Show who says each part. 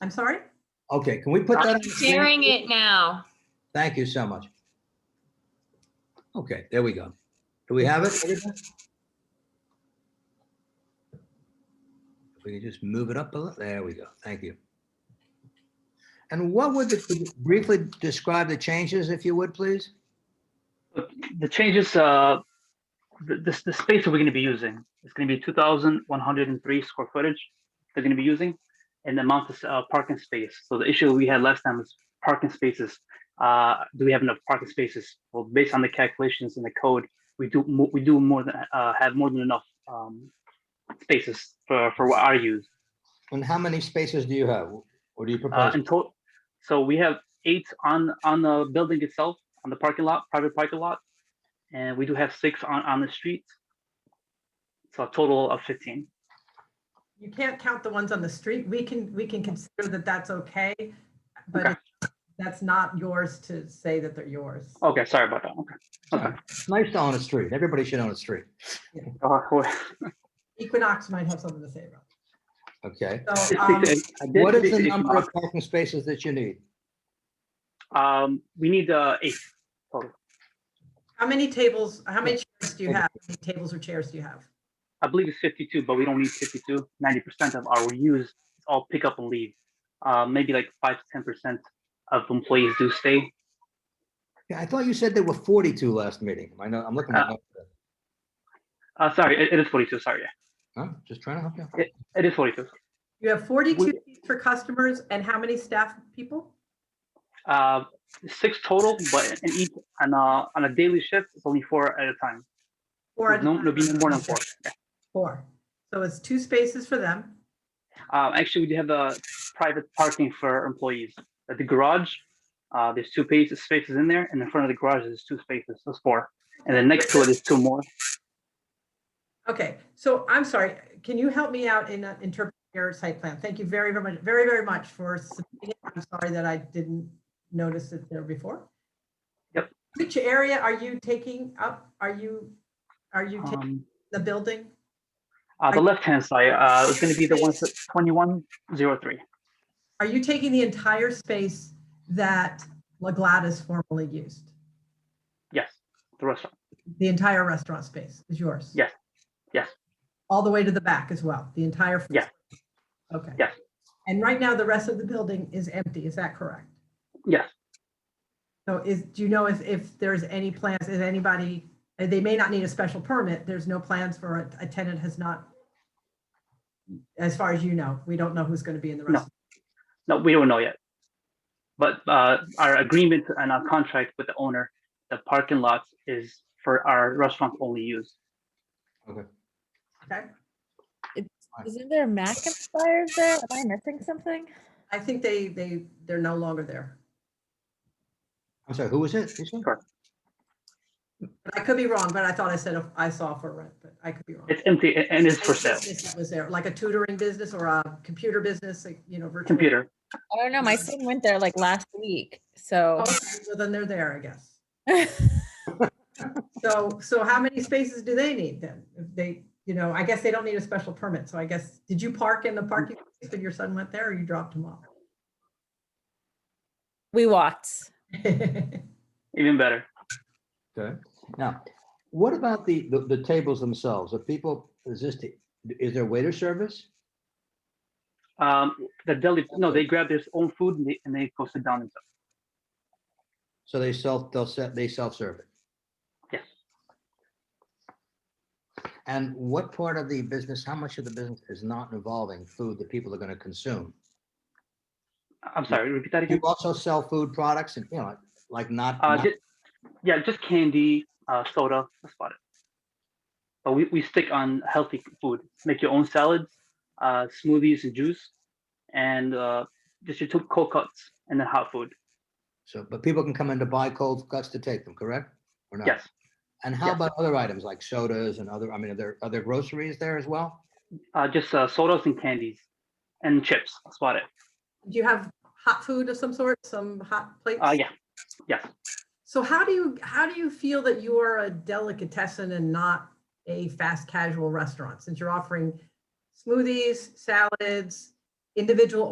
Speaker 1: I'm sorry?
Speaker 2: Okay, can we put that? on
Speaker 3: I'm
Speaker 2: the screen?
Speaker 3: sharing it now.
Speaker 2: Thank you so much. Okay, there we go. Do we have it? everyone? If we could just move it up a little, there we go. Thank you. And what would, the- could you briefly describe the changes, if you would, please?
Speaker 4: the changes, uh, the, the, the space that we're gonna be using, it's gonna be two thousand one hundred and three square footage they're gonna be using and the amount of uh, parking space. So the issue we had last time was parking spaces. Uh, do we have enough parking spaces? Well, based on the calculations in the code, we do, mo- we do more than, uh, have more than enough, um, spaces for, for what our use.
Speaker 2: And how many spaces do you have? Or do you
Speaker 4: Uh,
Speaker 2: propose?
Speaker 4: in total, so we have eight on, on the building itself, on the parking lot, private parking lot. And we do have six on, on the street. So a total of fifteen.
Speaker 1: You can't count the ones on the street. We can, we can consider that that's okay, but
Speaker 4: Okay.
Speaker 1: that's not yours to say that they're yours.
Speaker 4: Okay, sorry about that. Okay.
Speaker 2: It's Nice to own a street. Everybody should own a street.
Speaker 4: Uh, wait,
Speaker 1: Equinox might have something to say about. it.
Speaker 2: Okay.
Speaker 1: So,
Speaker 4: I
Speaker 1: um,
Speaker 4: did speak to
Speaker 2: What is the
Speaker 4: Ishmael.
Speaker 2: number of parking spaces that you need?
Speaker 4: Um, we need, uh, eight.
Speaker 1: How many tables, how many chairs do you have? How many Tables or chairs do you have?
Speaker 4: I believe it's fifty-two, but we don't need fifty-two. Ninety percent of our use is all pick up and leave. Uh, maybe like five to ten percent of employees do stay.
Speaker 2: Yeah, I thought you said there were 42 last meeting. I know, I'm looking at,
Speaker 4: Uh, sorry, it- it is forty-two, sorry. yeah.
Speaker 2: huh? Just trying to help you. out.
Speaker 4: It is forty-two.
Speaker 1: You have 42 seats for customers and how many staff people?
Speaker 4: Uh, six total, but in each, on a, on a daily shift, it's only four at a time.
Speaker 1: Four.
Speaker 4: There's No, no, be more than four. Yeah.
Speaker 1: Four. So it's two spaces for them.
Speaker 4: Uh, actually, we do have a private parking for employees at the garage. Uh, there's two spaces, spaces in there, and in front of the garage, there's two spaces, so it's four. And then next to it is two more.
Speaker 1: Okay, so I'm sorry, can you help me out in uh, interpreting your site plan? Thank you very, very much, very, very much for submitting it. I'm sorry that I didn't notice it there before.
Speaker 4: Yep.
Speaker 1: Which area are you taking up? Are you, are you taking
Speaker 4: Um,
Speaker 1: the building?
Speaker 4: uh, the left-hand side, uh, is gonna be the one that's twenty-one zero three.
Speaker 1: Are you taking the entire space that La Gladys formerly used?
Speaker 4: Yes, the restaurant.
Speaker 1: The entire restaurant space is yours?
Speaker 4: Yes. Yes.
Speaker 1: All the way to the back as well, the entire? first
Speaker 4: Yes.
Speaker 1: floor? Okay.
Speaker 4: Yes.
Speaker 1: And right now, the rest of the building is empty, is that correct?
Speaker 4: Yes,
Speaker 1: So is, do you know if, if there's any plans, is anybody, uh, they may not need a special permit, there's no plans for a, a tenant has not. As far as you know, we don't know who's gonna be in the
Speaker 4: No.
Speaker 1: rest.
Speaker 4: no, we don't know yet. But, uh, our agreement and our contract with the owner, the parking lots is for our restaurant only use.
Speaker 1: Okay,
Speaker 5: Isn't there Mac inspired there? Am I missing something?
Speaker 1: I think they, they, they're no longer there,
Speaker 2: I'm sorry, who was it? You said?
Speaker 1: but I could be wrong, but I thought I said, if I saw for rent, but I could be wrong.
Speaker 4: It's empty a- and it's for sale.
Speaker 1: Business that Was there like a tutoring business or a computer business, like, you know, virtual?
Speaker 4: Computer.
Speaker 5: I don't know. My son went there like last week, so
Speaker 1: Okay,
Speaker 5: Oh.
Speaker 1: So Oh, then they're there, I guess. So, so how many spaces do they need then? If they, you know, I guess they don't need a special permit, so I guess, did you park in the parking space when your son went there or you dropped him off?
Speaker 5: we walked.
Speaker 4: Even better.
Speaker 2: Okay. Now, what about the, the, the tables themselves? Are people, is this, the- is there waiter service?
Speaker 4: Um, the deli, no, they grab their own food and they, and they post it down themselves.
Speaker 2: So they self, they'll set, they self-serve it?
Speaker 4: Yes.
Speaker 2: And what part of the business, how much of the business is not involving food that people are going to consume?
Speaker 4: I'm sorry, repeat that
Speaker 2: You
Speaker 4: again.
Speaker 2: also sell food products and, you know, like not,
Speaker 4: Uh,
Speaker 2: not-
Speaker 4: just, yeah, just candy, uh, soda, that's about it. But we, we stick on healthy food. Make your own salads, uh, smoothies and juice, and uh, just your two cold cuts and then hot food.
Speaker 2: so, but people can come in to buy cold cuts to take them, correct? Or not?
Speaker 4: Yes,
Speaker 2: And how
Speaker 4: yes.
Speaker 2: about other items like sodas and other, I mean, are there, are there groceries there as well?
Speaker 4: uh, just uh, sodas and candies and chips. That's about it.
Speaker 1: Do you have hot food of some sort, some hot plates?
Speaker 4: Uh, yeah,
Speaker 1: So how do you, how do you feel that you are a delicatessen and not a fast casual restaurant? Since you're offering smoothies, salads, individual